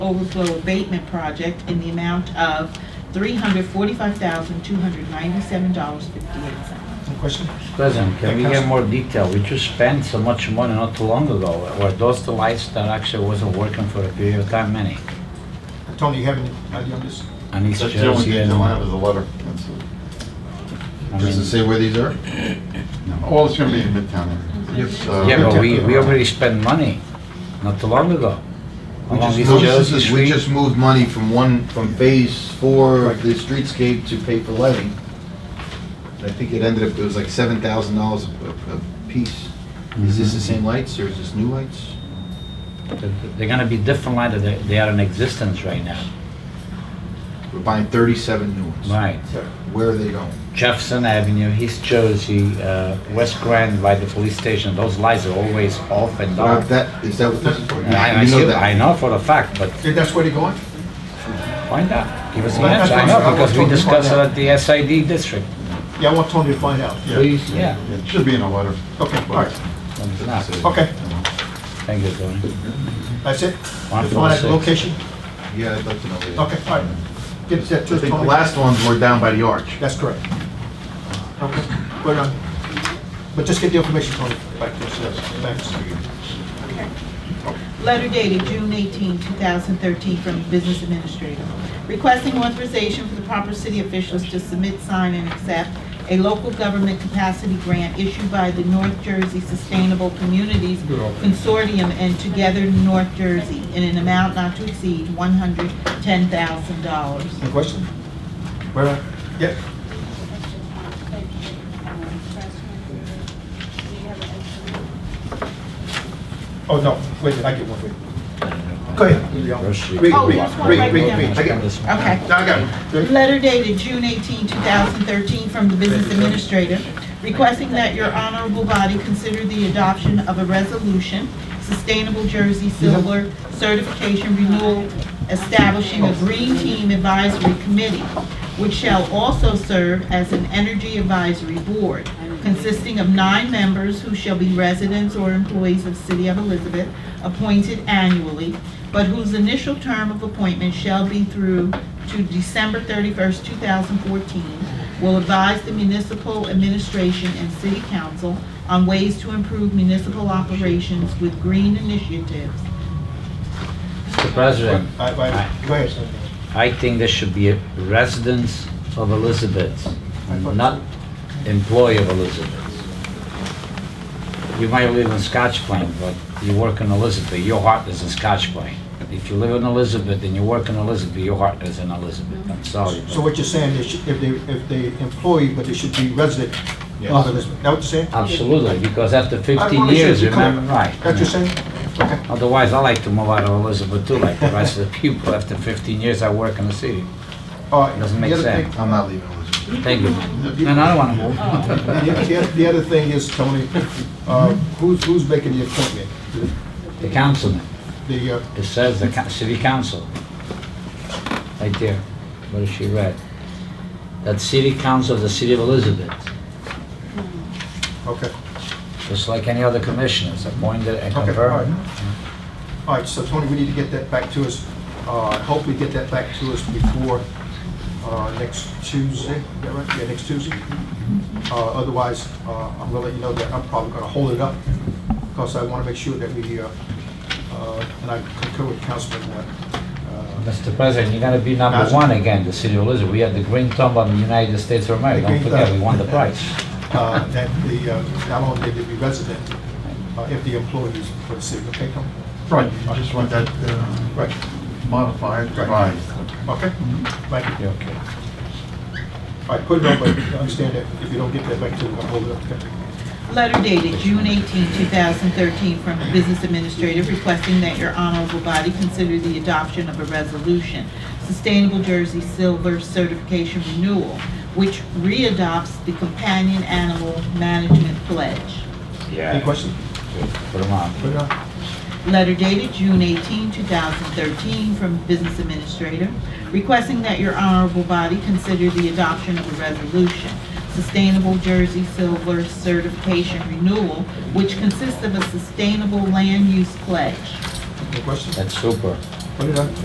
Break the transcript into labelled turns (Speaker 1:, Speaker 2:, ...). Speaker 1: overflow abatement project in the amount of $345,297.58.
Speaker 2: Any question?
Speaker 3: President, can we get more detail? We just spent so much money not too long ago. Were those the lights that actually wasn't working for a period of time, many?
Speaker 2: Tony, you have any idea on this?
Speaker 3: And it's
Speaker 4: That's the only
Speaker 3: just,
Speaker 4: thing
Speaker 3: you
Speaker 4: they don't
Speaker 3: know,
Speaker 4: have is a letter. That's it.
Speaker 3: I
Speaker 4: Does it
Speaker 3: mean,
Speaker 4: say where these are? All it's gonna be in Midtown area. uh,
Speaker 2: Yes.
Speaker 4: So-
Speaker 3: yeah, but we, we already spent money not too long ago.
Speaker 4: We
Speaker 3: Along
Speaker 4: just
Speaker 3: East
Speaker 4: moved-
Speaker 3: Jersey
Speaker 4: We
Speaker 3: Street.
Speaker 4: just moved money from one, from phase four of the streetscape to pay for lighting. I think it ended up, it was like seven thousand dollars a, a piece. Is this the same lights or is this new lights?
Speaker 3: They're gonna be different light than they they are in existence right now.
Speaker 4: We're buying thirty-seven new ones.
Speaker 3: Right.
Speaker 4: Where are they going?
Speaker 3: Jefferson Avenue, East Jersey, uh, West Grand by the police station, those lights are always off and
Speaker 4: Now,
Speaker 3: on.
Speaker 4: That, is that what this is for?
Speaker 3: And Uh, I, I
Speaker 4: You know
Speaker 3: see-
Speaker 4: that.
Speaker 3: I know for a fact, but
Speaker 2: Okay, That's where they're going?
Speaker 3: Find out. Give us an
Speaker 2: Well,
Speaker 3: answer. I
Speaker 2: that's
Speaker 3: know,
Speaker 2: fine.
Speaker 3: because we
Speaker 2: I'll talk to
Speaker 3: discussed it at the SID district.
Speaker 2: Yeah, I want Tony to find out. Yeah.
Speaker 3: Please, yeah.
Speaker 4: It should be in Oh, a letter.
Speaker 2: Okay, all right,
Speaker 3: It's not.
Speaker 2: okay,
Speaker 3: Thank you, Tony.
Speaker 2: that's it?
Speaker 3: One
Speaker 2: You want that
Speaker 3: four six.
Speaker 2: location?
Speaker 4: Yeah, I'd like to know. where they
Speaker 2: Okay,
Speaker 4: are.
Speaker 2: all right. Get that
Speaker 4: I
Speaker 2: to
Speaker 4: think the
Speaker 2: Tony.
Speaker 4: last ones were down by the arch.
Speaker 2: That's correct. Okay, put it on. But just get the information, Tony, back to us, yes, thanks.
Speaker 1: Letter dated June 18, 2013, from the Business Administrator, requesting authorization for the proper city officials to submit, sign, and accept a local government capacity grant issued by the North Jersey Sustainable Communities Consortium and Together North Jersey in an amount not to exceed $110,000.
Speaker 2: Any question? Where, am I? yeah, oh, no, wait, a minute, I get one, wait. Go ahead. Read,
Speaker 1: Oh,
Speaker 2: read,
Speaker 1: there's one
Speaker 2: read,
Speaker 1: right
Speaker 2: read,
Speaker 1: there.
Speaker 2: read. I get-
Speaker 1: Okay.
Speaker 2: No, I got it.
Speaker 1: Letter dated June 18, 2013, from the Business Administrator, requesting that your honorable body consider the adoption of a resolution, Sustainable Jersey Silver Certification Renewal, establishing a Green Team Advisory Committee, which shall also serve as an Energy Advisory Board, consisting of nine members who shall be residents or employees of City of Elizabeth, appointed annually, but whose initial term of appointment shall be through to December 31st, 2014, will advise the municipal administration and city council on ways to improve municipal operations with green initiatives.
Speaker 3: Mr. President,
Speaker 2: I- I- Go ahead.
Speaker 3: I think there should be a residence of Elizabeth, not employee of Elizabeth. You might live in Scotch Plain, but you work in Elizabeth, your heart is in Scotch Plain. If you live in Elizabeth and you work in Elizabeth, your heart is in Elizabeth. I'm sorry. but-
Speaker 2: So what you're saying is, if they, if they employee, but they should be resident of
Speaker 4: Yes.
Speaker 2: Elizabeth, is that what you're saying?
Speaker 3: Absolutely, because after
Speaker 2: I
Speaker 3: 15
Speaker 2: wanna see
Speaker 3: years,
Speaker 2: if you come-
Speaker 3: remember, right.
Speaker 2: That you're saying? Okay,
Speaker 3: Otherwise, I like to move out of Elizabeth too, like the rest of the people. After 15 years, I work in the city.
Speaker 2: all right.
Speaker 3: Doesn't
Speaker 2: The
Speaker 3: make
Speaker 2: other thing-
Speaker 3: sense.
Speaker 4: I'm not leaving Elizabeth.
Speaker 3: Thank you. And I don't want to move.
Speaker 2: The the other- the other thing is, Tony,
Speaker 3: Mm-hmm.
Speaker 2: uh, who's, who's making the appointment?
Speaker 3: The councilman,
Speaker 2: The, uh,
Speaker 3: it says the coun- city council. Right there, what is she read? That city council of the city of Elizabeth,
Speaker 2: uh, okay,
Speaker 3: just like any other commissioners appointed and
Speaker 2: okay, all right.
Speaker 3: confirmed.
Speaker 2: All right, so Tony, we need to get that back to us, uh, hope we get that back to us before uh, next Tuesday, is that right? Yeah, next Tuesday. Uh, Otherwise, uh, I'm gonna let you know that I'm probably gonna hold it up, because I wanna make sure that we, uh, uh, and I concur with Councilman, uh,
Speaker 3: Mr. President, you're gonna be number
Speaker 2: Council-
Speaker 3: one again, the city of Elizabeth. We had the green thumb on the United States of America. Don't
Speaker 2: green
Speaker 3: forget,
Speaker 2: thumb.
Speaker 3: we won the prize.
Speaker 2: uh, that the, uh, not only they be resident, uh, if the employees for the city, okay, Tony?
Speaker 4: Right, I just want that uh,
Speaker 2: Right,
Speaker 4: modified,
Speaker 2: Right.
Speaker 4: revised.
Speaker 2: okay, thank you.
Speaker 3: You okay?
Speaker 2: All right, put it on, but understand that if you don't get that back to, I'll hold it up. okay?
Speaker 1: Letter dated June 18, 2013, from the Business Administrator requesting that your honorable body consider the adoption of a resolution, Sustainable Jersey Silver Certification Renewal, which readopts the Companion Animal Management Pledge.
Speaker 2: Any
Speaker 3: Yeah.
Speaker 2: questions?
Speaker 3: Put 'em on.
Speaker 2: Put it on.
Speaker 1: Letter dated June 18, 2013, from Business Administrator, requesting that your honorable body consider the adoption of a resolution, Sustainable Jersey Silver Certification Renewal, which consists of a sustainable land use pledge.
Speaker 2: Any questions? Oh,
Speaker 3: That's super.
Speaker 2: Put it on.